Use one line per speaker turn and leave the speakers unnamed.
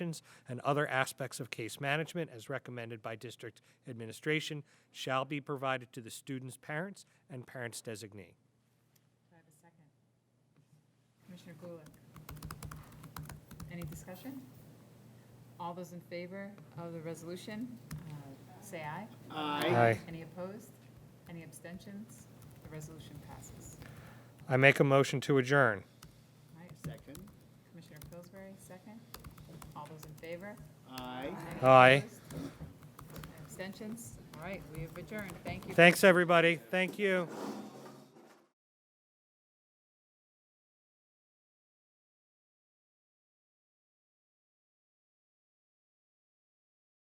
operations and other aspects of case management as recommended by district administration shall be provided to the student's parents and parents designee.
Do I have a second? Commissioner Gulick? Any discussion? All those in favor of the resolution, uh, say aye.
Aye.
Any opposed? Any abstentions? The resolution passes.
I make a motion to adjourn.
All right,
Second.
Commissioner Pillsbury, second. All those in favor?
Aye.
Any
Aye.
opposed? Abstentions? All right, we have adjourned. Thank you.
Thanks, everybody. Thank you.